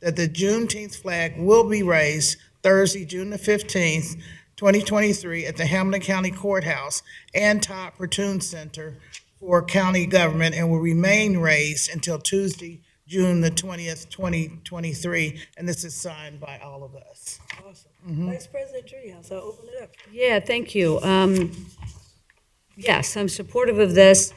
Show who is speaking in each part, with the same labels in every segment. Speaker 1: that the Juneteenth flag will be raised Thursday, June the 15th, 2023, at the Hamilton County Courthouse and Todd Pertune Center for County Government and will remain raised until Tuesday, June the 20th, 2023. And this is signed by all of us.
Speaker 2: Mm-hmm.
Speaker 3: Awesome. Vice President Treehouse, I'll open it up.
Speaker 2: Yeah, thank you. Um, Yes, I'm supportive of this.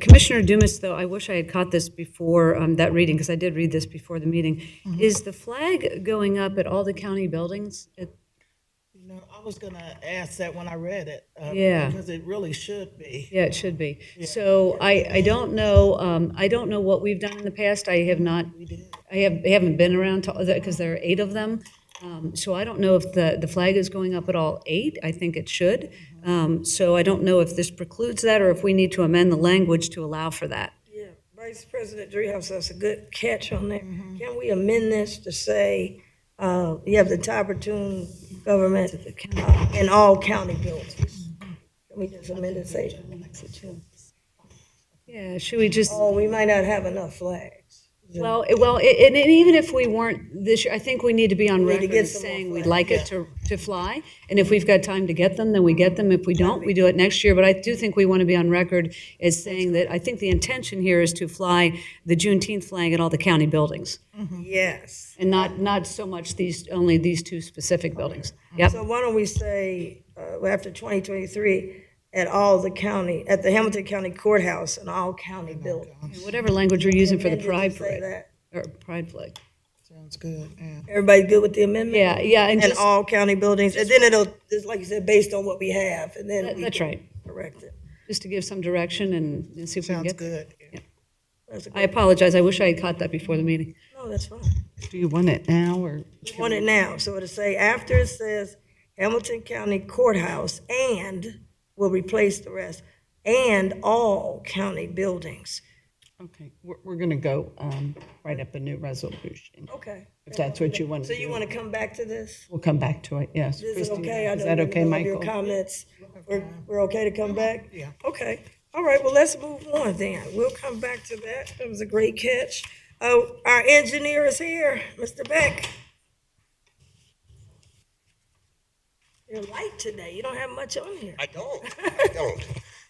Speaker 2: Commissioner Dumas, though, I wish I had caught this before um, that reading, because I did read this before the meeting. Is the flag going up at all the county buildings? It-
Speaker 1: You know, I was gonna ask that when I read it. uh,
Speaker 2: Yeah.
Speaker 1: Because it really should be.
Speaker 2: Yeah, it should be. So I, I don't know, um, I don't know what we've done in the past. I have not, I have, I haven't been around to, because there are eight of them. Um, So I don't know if the, the flag is going up at all eight. I think it should. Um, So I don't know if this precludes that or if we need to amend the language to allow for that.
Speaker 3: Yeah, Vice President Treehouse, that's a good catch on that.
Speaker 2: Mm-hmm.
Speaker 3: Can we amend this to say, uh, you have the Tiberton government uh, in all county buildings?
Speaker 2: Mm-hmm.
Speaker 3: Can we just amend it, say,
Speaker 2: Yeah, should we just,
Speaker 3: oh, we might not have enough flags?
Speaker 2: well, it- well, it- and and even if we weren't this year, I think we need to be on
Speaker 3: We need to
Speaker 2: record
Speaker 3: get
Speaker 2: as
Speaker 3: some more
Speaker 2: saying we'd
Speaker 3: flags.
Speaker 2: like it to, to fly. And if we've got time to get them, then we get them. If we don't, we do it next year. But I do think we want to be on record as saying that I think the intention here is to fly the Juneteenth flag at all the county buildings
Speaker 3: Yes.
Speaker 2: and not, not so much these, only these two specific buildings. Yep,
Speaker 3: So why don't we say, uh, after 2023, at all the county, at the Hamilton County Courthouse and all county buildings?
Speaker 2: whatever language you're Oh using for the
Speaker 3: Amend it to
Speaker 2: pride
Speaker 3: say
Speaker 2: parade,
Speaker 3: that.
Speaker 2: or pride flag.
Speaker 1: Sounds good, yeah.
Speaker 3: Everybody good with the amendment?
Speaker 2: Yeah, yeah, and
Speaker 3: And
Speaker 2: just,
Speaker 3: all county buildings, and then it'll, just like you said, based on what we have, and then
Speaker 2: that-
Speaker 3: we
Speaker 2: that's
Speaker 3: can
Speaker 2: right,
Speaker 3: correct it.
Speaker 2: just to give some direction and and see if we can
Speaker 1: Sounds
Speaker 2: get there.
Speaker 1: good.
Speaker 3: That's a
Speaker 2: I
Speaker 3: good,
Speaker 2: apologize, I wish I had caught that before the meeting.
Speaker 3: no, that's fine.
Speaker 4: Do you want it now or?
Speaker 3: We Want it now, so it'll say, after it says Hamilton County Courthouse and, will replace the rest, and all county buildings.
Speaker 4: Okay, we're, we're going to go um, write up a new resolution,
Speaker 3: Okay.
Speaker 4: if that's what you want
Speaker 3: So
Speaker 4: to
Speaker 3: you
Speaker 4: do.
Speaker 3: want to come back to this?
Speaker 4: We'll come back to it,
Speaker 3: Is
Speaker 4: yes.
Speaker 3: it
Speaker 4: Christine,
Speaker 3: okay? I
Speaker 4: Is
Speaker 3: know
Speaker 4: that
Speaker 3: you
Speaker 4: okay,
Speaker 3: know Your
Speaker 4: Michael?
Speaker 3: comments, we're, we're okay to come back?
Speaker 1: Yeah.
Speaker 3: Okay, all right, well, let's move on then. We'll come back to that. That was a great catch. Oh, our engineer is here, Mr. Beck. You're light today. You don't have much on here.
Speaker 5: I don't. I don't.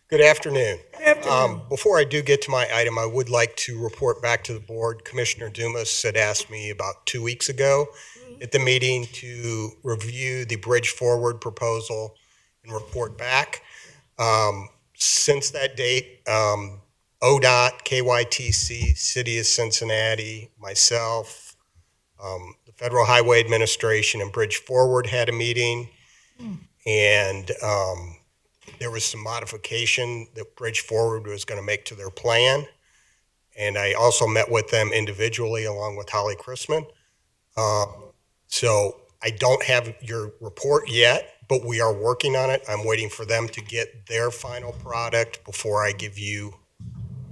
Speaker 5: Good afternoon.
Speaker 3: Good afternoon.
Speaker 5: Um, Before I do get to my item, I would like to report back to the board. Commissioner Dumas had asked me about two weeks ago at the meeting to review the Bridge Forward proposal and report back. Um, Since that date, um, ODOT, KYTC, City of Cincinnati, myself, um, the Federal Highway Administration and Bridge Forward had a meeting. And um, there was some modification that Bridge Forward was going to make to their plan. And I also met with them individually along with Holly Chrisman. Uh, So I don't have your report yet, but we are working on it. I'm waiting for them to get their final product before I give you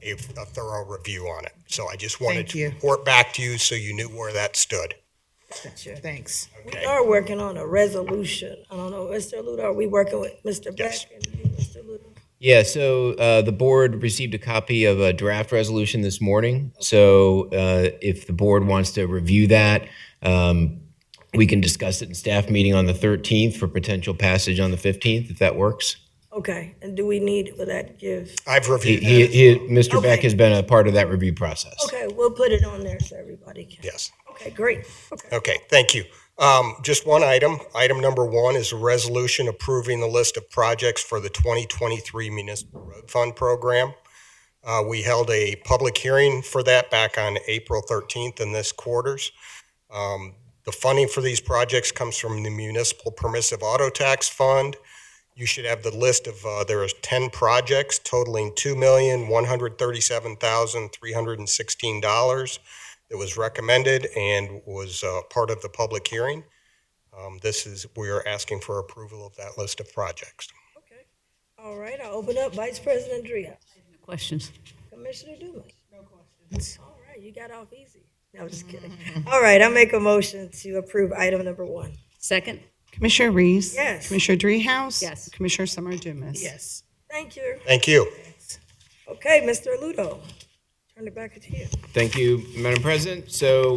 Speaker 5: a a thorough review on it. So I just
Speaker 1: Thank
Speaker 5: wanted to
Speaker 1: you.
Speaker 5: report back to you so you knew where that stood.
Speaker 1: Thanks.
Speaker 3: We are working on a resolution. I don't know, Mr. Ludo, are we working with Mr. Beck?
Speaker 5: Yes.
Speaker 3: and you, Mr. Ludo?
Speaker 6: Yeah, so uh, the board received a copy of a draft resolution this morning. So uh, if the board wants to review that, um, we can discuss it in staff meeting on the 13th for potential passage on the 15th, if that works.
Speaker 3: Okay, and do we need, will that give?
Speaker 5: I've
Speaker 6: He,
Speaker 5: reviewed
Speaker 6: he,
Speaker 5: that.
Speaker 6: he- Mr. Beck
Speaker 3: Okay.
Speaker 6: has been a part of that review process.
Speaker 3: Okay, we'll put it on there so everybody can.
Speaker 5: Yes.
Speaker 3: Okay, great. Okay.
Speaker 5: Okay, thank you. Um, Just one item. Item number one is a resolution approving the list of projects for the 2023 Municipal Road Fund Program. Uh, We held a public hearing for that back on April 13th in this quarters. Um, The funding for these projects comes from the Municipal Permissive Auto Tax Fund. You should have the list of, uh, there is 10 projects totaling $2,137,316 that was recommended and was uh, part of the public hearing. Um, This is, we are asking for approval of that list of projects.
Speaker 3: Okay. All right, I'll open up Vice President Drea.
Speaker 2: Questions?
Speaker 3: Commissioner Dumas. No questions. All right, you got off easy. No, I'm just kidding. All right, I make a motion to approve item number one.
Speaker 2: Second?
Speaker 4: Commissioner Reese?
Speaker 3: Yes.
Speaker 4: Commissioner Dreehouse?
Speaker 2: Yes.
Speaker 4: Commissioner Summer Dumas?
Speaker 1: Yes.
Speaker 3: Thank you.
Speaker 5: Thank you.
Speaker 3: Okay, Mr. Ludo, turn it back to you.
Speaker 6: Thank you, Madam President. So